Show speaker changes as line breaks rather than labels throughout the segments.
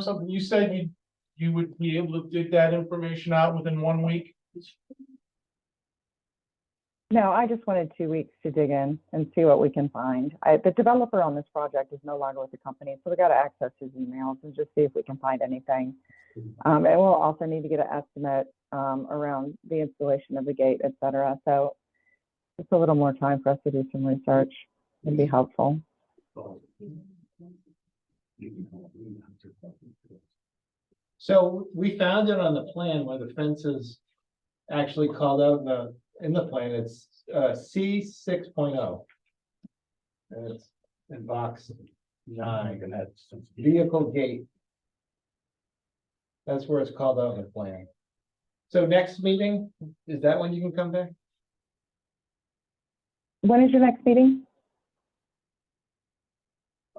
something, you said you, you would be able to dig that information out within one week?
No, I just wanted two weeks to dig in and see what we can find. I, the developer on this project is no longer with the company, so we got to access his emails and just see if we can find anything. Um, and we'll also need to get an estimate um, around the installation of the gate, et cetera. So just a little more time for us to do some research would be helpful.
So we found it on the plan where the fence is actually called out in the, in the plan, it's uh C six oh. And it's in box nine, and that's vehicle gate. That's where it's called out in the plan. So next meeting, is that when you can come back?
When is your next meeting?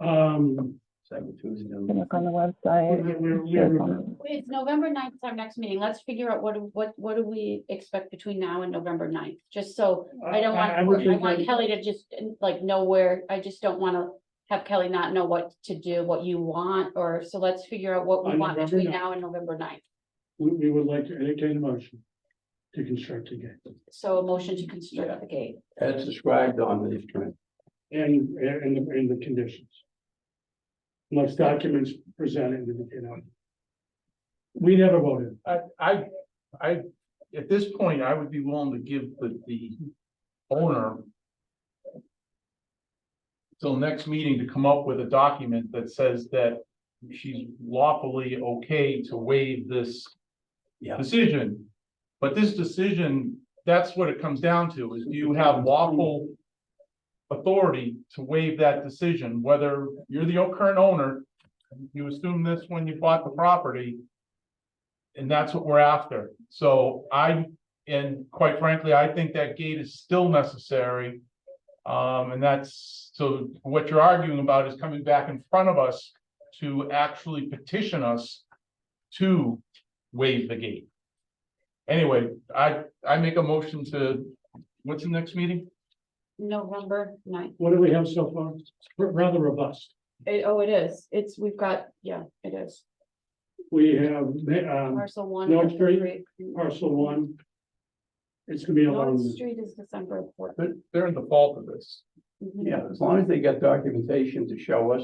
Um,
You can look on the website.
we- we- we-
Sure, it's on-
It's November 9th. is our next meeting. Let's figure out what, do- what, what do we expect between now and November 9th? just so, I
uh,
don't want,
I would
I
think
want
that-
Kelly to just like know where, I just don't wanna have Kelly not know what to do, what you want, or, so let's figure out what we
On
want
November
between
9th.
now and November 9th.
we, we would like to entertain a motion to construct a gate.
So a motion to construct the gate.
As described on this plan.
And, and, and the- and the conditions. Unless documents presented, you know. We never voted.
I, I, I, at this point, I would be willing to give the, the owner till next meeting to come up with a document that says that she's lawfully okay to waive this
Yeah.
decision. But this decision, that's what it comes down to, is do you have lawful authority to waive that decision, whether you're the current owner, you assume this when you bought the property, and that's what we're after. So I, and quite frankly, I think that gate is still necessary. Um, and that's, so what you're arguing about is coming back in front of us to actually petition us to waive the gate. Anyway, I, I make a motion to, what's the next meeting?
November 9th.
What do we have so far? R- Rather robust.
It, oh, it is, it's, we've got, yeah, it is,
We have, um,
parcel one.
North
parcel
Street,
three.
parcel one. It's gonna be a long,
North Street is December fourth.
They're, they're in the fault of this.
Mhm.
Yeah, as long as they got documentation to show us,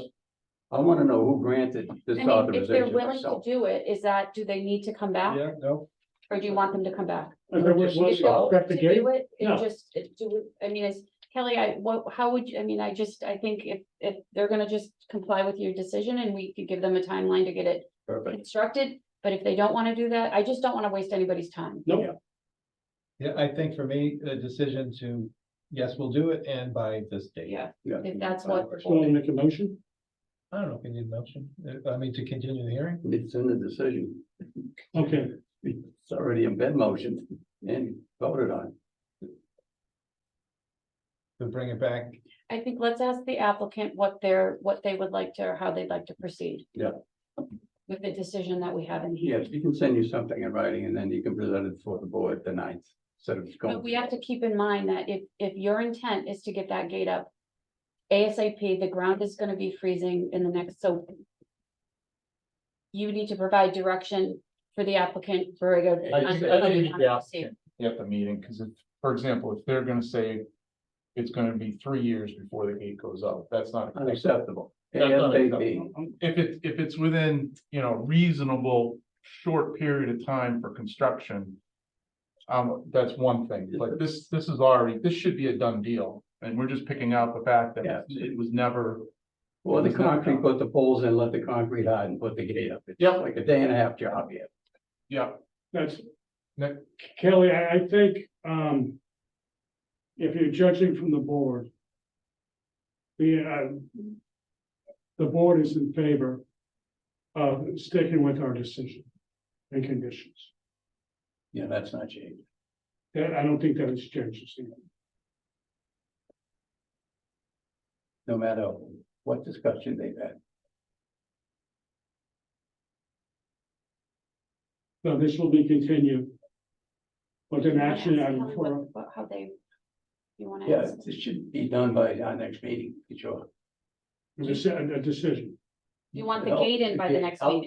I wanna know who granted this
I mean, if they're
authorization
willing to
myself.
do it, is that, do they need to come back?
no.
Or do you want them to come back?
if there was,
If they're open
construct
to
the gate,
do it, it
No.
just, it do, I mean, it's, Kelly, I, what, how would you, I mean, I just, I think if, if they're gonna just comply with your decision and we could give them a timeline to get it
Perfect.
constructed. But if they don't wanna do that, I just don't wanna waste anybody's time.
Nope.
Yeah, I think for me, the decision to, yes, we'll do it and by this date.
Yeah,
Yeah.
if that's what,
so we'll make a motion.
I don't know if we need a motion, uh, I mean, to continue the hearing.
It's in the decision.
Okay,
It's already in bed motion and voted on.
to bring it back.
I think let's ask the applicant what their, what they would like to, or how they'd like to proceed.
Yeah.
With the decision that we have in here.
Yes, you can send you something in writing and then you can present it for the board the ninth, instead of. going-
But we have to keep in mind that if, if your intent is to get that gate up ASAP, the ground is gonna be freezing in the next, so you need to provide direction for the applicant for a good.
I think- I think the applicant At the meeting, because if, for example, if they're gonna say it's gonna be three years before the gate goes up, that's not.
Unacceptable.
That's not
ASAP.
If it's, if it's within, you know, reasonable, short period of time for construction. Um, that's one thing, but this, this is already, this should be a done deal, and we're just picking out the fact
Yeah.
that it was never.
Or the concrete, put the poles in, let the concrete hide and put the gate up. It's
Yeah.
Like a day and a half job here.
Yeah,
that's,
Nick?
Kelly, I, I think, um. If you're judging from the board. The, uh, the board is in favor of sticking with our decision and conditions.
Yeah, that's not changed.
That, I don't think that has changed. Steve.
no matter what discussion they've had.
So this will be continued. With an action item for,
How they, you wanna
Yeah,
ask,
this should be done by our next meeting, for sure.
a deci- a decision.
you want the
No,
gate in by the
gate
next
out
meeting?